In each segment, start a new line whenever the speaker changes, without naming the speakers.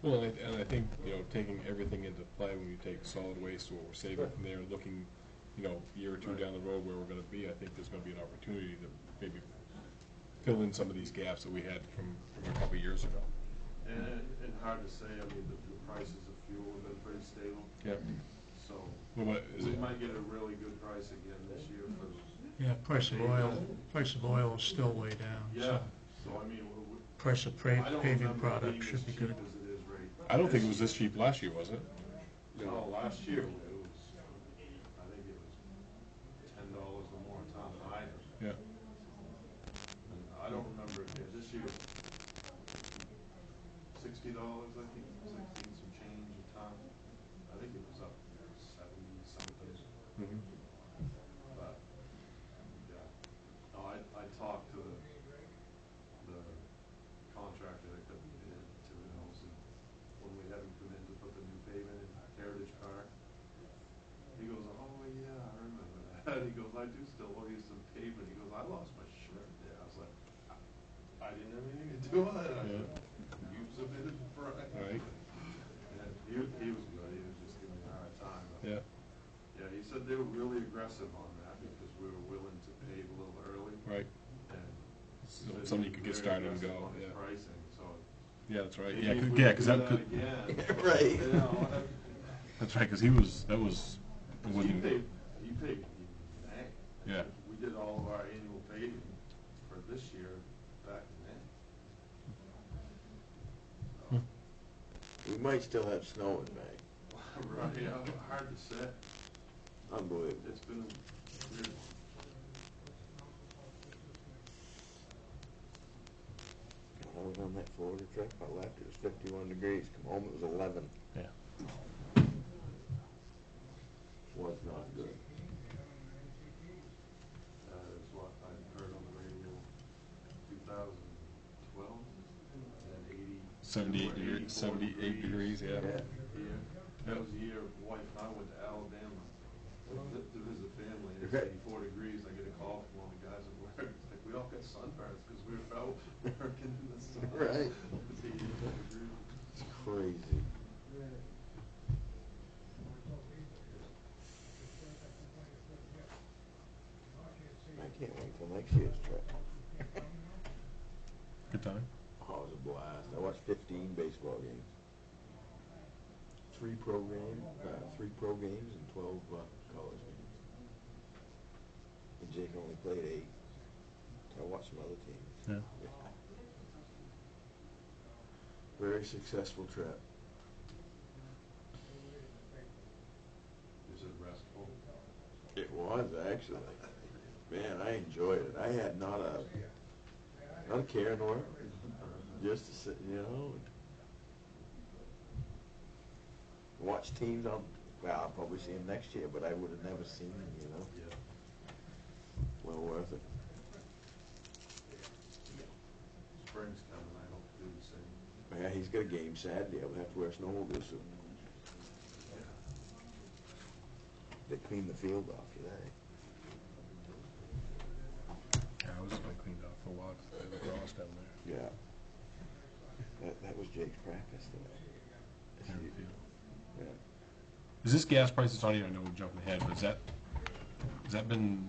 Well, and I, and I think, you know, taking everything into play when you take solid waste, what we're saving from there, looking, you know, a year or two
Right.
down the road where we're gonna be, I think there's gonna be an opportunity to maybe fill in some of these gaps that we had from, from a couple of years ago.
And, it- and hard to say, I mean, the, the prices of fuel have been pretty stable,
Yeah.
so
Well, what, is
we
it,
might get a really good price again this year for,
Yeah, price of oil, price of oil is still way down,
yeah,
so
so I mean, we- we-
price of
I
pra-
don't
paving
remember it being
product
as
should be
cheap
good.
as it is right.
I don't think it was this cheap last year, was it?
No, last year it was, I think it was ten dollars or more a ton higher.
Yeah.
And I don't remember, it being- this year, sixty dollars, I think, sixty and some change a ton. I think it was up seventy something.
Mhm.
But, yeah, no, I, I talked to the, the contractor that couldn't get in to the house, and when we had him come in to put the new pavement in Heritage Park, he goes, oh, yeah, I remember that, he goes, I do still owe you some pavement, he goes, I lost my shirt there, I was like, "I- I didn't have anything to do with it, I said, you submitted the price.
Right.
And he, he was good, he was just giving me a hard time, but
Yeah,
yeah, he said they were really aggressive on that because we were willing to pave a little early
right.
and.
So
he said he
Somebody
was
could get
very
started and
aggressive
go,
on his
yeah.
Pricing, so.
Yeah, that's right.
maybe
Yeah,
if
'cause-
we
yeah,
could
'cause
do
that could,
Again.
Right.
You know, I-
that's right, 'cause he was, that was,
He
wasn't,
paved, he paved in May.
Yeah.
We did all of our annual paving for this year back in May. So,
We might still have snow in May.
Right, yeah, hard to say.
Unbelievable.
It's been a weird one.
When I was on that Florida trip, I left, it was fifty-one degrees, come home, it was eleven.
Yeah.
Was not good.
Uh, is what I heard on the radio, two thousand twelve, and eighty.
seventy-eight
were
degrees,
84
seventy-eight degrees, yeah.
Here,
Yeah.
that was the year wife and I went to Alabama to to visit family, and it was
Okay.
eighty-four degrees, I get a call from one of the guys at work, it's like, we all got sunburns, because we were out working in the sun.
Right.
It was eighty-four degrees.
It's crazy. I can't wait till next year's trip.
Good time.
Oh, it was a blast. I watched fifteen baseball games. Three pro game, uh, three pro games and twelve, uh, college games. And Jake only played eight. I watched some other teams.
Yeah.
Very successful trip.
Is it restful?
It was actually. Man, I enjoyed it. I had not a, not a care in the world. Just to sit, you know, and watch teams. I'll, well, I'll probably see them next year, but I would have never seen them. You know,
Yeah.
well worth it.
Spring's coming, I hope to do the same.
Yeah, he's got a game Saturday. I'll have to wear a snowmobile suit. They cleaned the field off today.
Yeah, I was just cleaned up for a while, 'cause they were lost down there.
Yeah. That, that was Jake's practice today. Yeah.
Is this gas price, it's not even, I know we're jumping ahead, but is that, has that been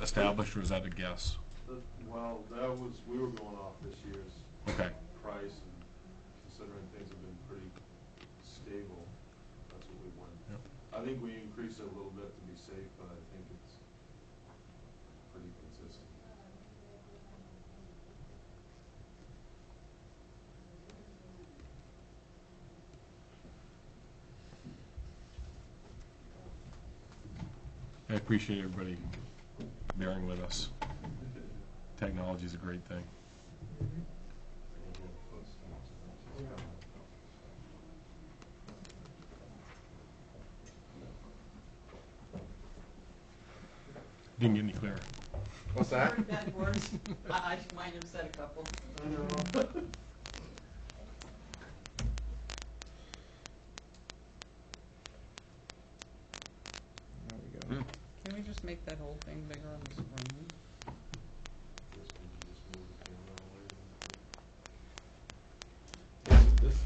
established or is that a guess?
The- Well, that was, we were going off this year's
Okay,
price and considering things have been pretty stable, that's what we went.
Yep.
I think we increased it a little bit to be safe, but I think it's pretty consistent.
I appreciate everybody bearing with us. Technology's a great thing. Didn't get any clearer.
What's
Heard that worse. I, I might have said a couple.
There we go.
Can we just make that whole thing bigger on the screen?